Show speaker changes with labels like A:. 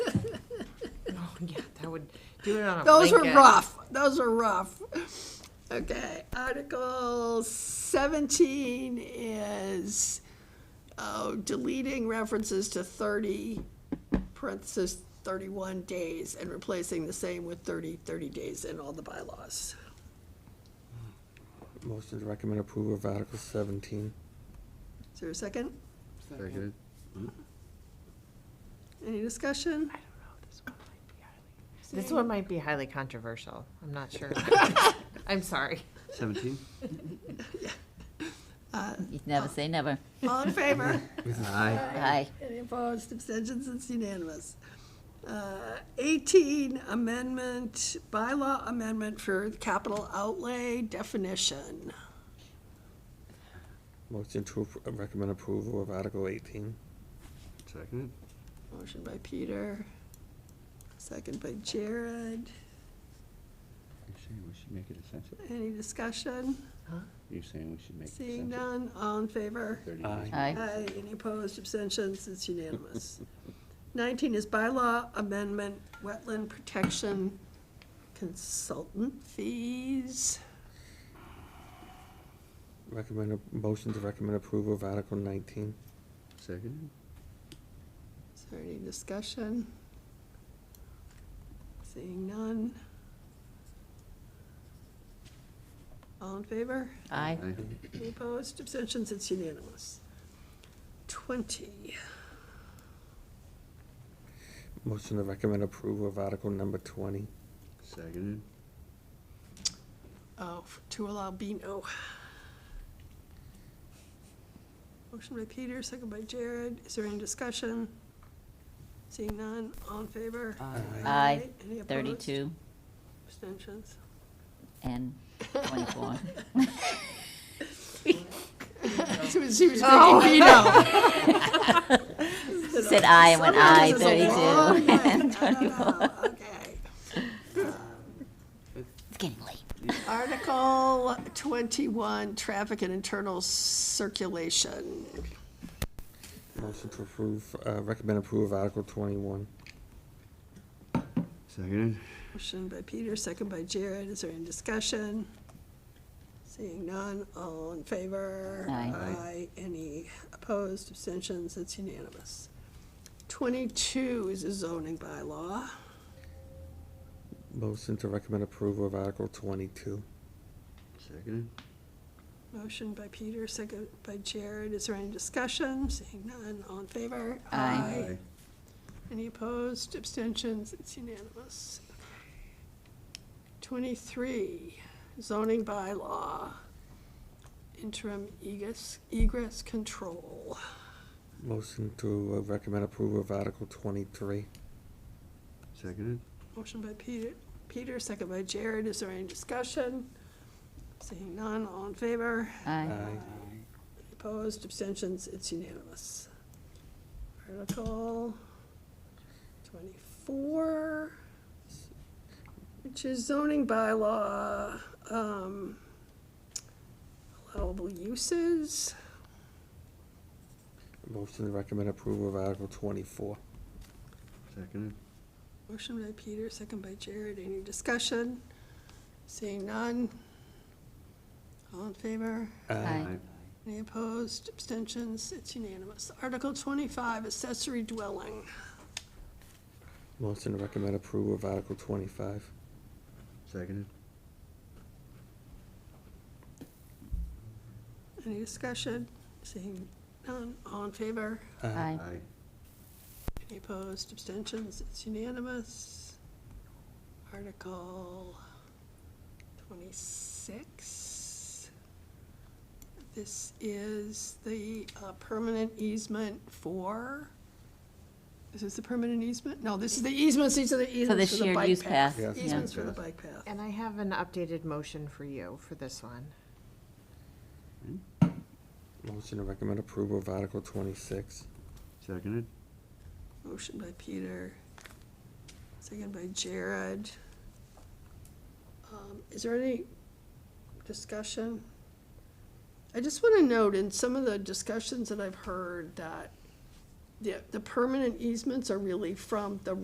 A: Oh, would do it on a
B: Those were
A: blanket.
B: rough, those were rough. Okay, Article seventeen is, oh, deleting references to thirty, parentheses, thirty-one days, and replacing the same with 30 30 days in all the bylaws.
C: Motion to recommend approval of Article seventeen.
B: Is there a second?
D: Seconded.
B: Any discussion?
A: This one might be highly controversial. I'm not sure. I'm sorry.
D: Seventeen?
E: You can never say never.
B: All in favor?
D: Aye.
E: Aye.
B: Any opposed, abstentions, it's unanimous. Uh, 18 amendment, bylaw amendment for capital outlay definition.
C: Motion to appro- uh, recommend approval of Article eighteen.
D: Seconded.
B: Motion by Peter, second by Jared.
D: You're saying we should make it essential?
B: Any discussion?
D: You're saying we should make it essential?
B: Seeing none, all in favor?
D: Thirty
C: Aye.
D: days.
E: Aye.
B: Aye, any opposed, abstentions, it's unanimous. 19 is bylaw amendment, wetland protection consultant fees.
C: Recommend, a- motion to recommend approval of Article nineteen.
D: Seconded.
B: Is there any discussion? Seeing none. All in favor?
E: Aye.
B: Any opposed? Abstentions? It's unanimous. Twenty.
C: Motion to recommend approval of Article number twenty.
D: Seconded.
B: Oh, to allow Bino. Motion by Peter, second by Jared. Is there any discussion? Seeing none. All in favor?
C: Aye.
E: Aye.
B: Any opposed?
E: Thirty-two
B: Abstentions?
E: and twenty-four.
B: She was, she was drinking Beano.
E: Said aye and went aye,
B: Sometimes it's a long night. "Oh, I don't
E: thirty-two and twenty-four.
B: know. Okay.
E: It's getting late.
B: Article twenty-one, traffic and internal circulation.
C: Motion to approve, uh, recommend approval of Article twenty-one.
D: Seconded.
B: Motion by Peter, second by Jared. Is there any discussion? Seeing none, all in favor?
E: Aye.
B: Aye. Any opposed, abstentions? It's unanimous. Twenty-two is a zoning bylaw.
C: Motion to recommend approval of Article twenty-two.
D: Seconded.
B: Motion by Peter, second by Jared. Is there any discussion? Seeing none, all in favor?
E: Aye.
D: Aye.
B: Any opposed, abstentions? It's unanimous. Twenty-three, zoning bylaw, interim egress, egress control.
C: Motion to uh, recommend approval of Article twenty-three.
D: Seconded.
B: Motion by Peter, Peter, second by Jared. Is there any discussion? Seeing none, all in favor?
E: Aye.
B: Opposed, abstentions, it's unanimous. Article twenty-four, which is zoning bylaw, um, allowable uses.
C: Motion to recommend approval of Article twenty-four.
D: Seconded.
B: Motion by Peter, second by Jared, any discussion? Seeing none. All in favor?
E: Aye.
B: Any opposed, abstentions, it's unanimous. Article twenty-five, accessory dwelling.
C: Motion to recommend approval of Article twenty-five.
D: Seconded.
B: Any discussion? Seeing none, all in favor?
E: Aye.
D: Aye.
B: Any opposed, abstentions? It's unanimous. Article twenty-six. This is the uh, permanent easement for, is this the permanent easement? No, this is the easements, these are the easements for the
E: shared
B: bike
E: use
B: path.
E: path, Yes.
C: yeah.
B: Easements for the
D: Yes.
B: bike path.
A: And I have an updated motion for you for this one.
C: Motion to recommend approval of Article twenty-six.
D: Seconded.
B: Motion by Peter, second by Jared. Um, Is there any discussion? I just want to note in some of the discussions that I've heard that the, the permanent easements are really from the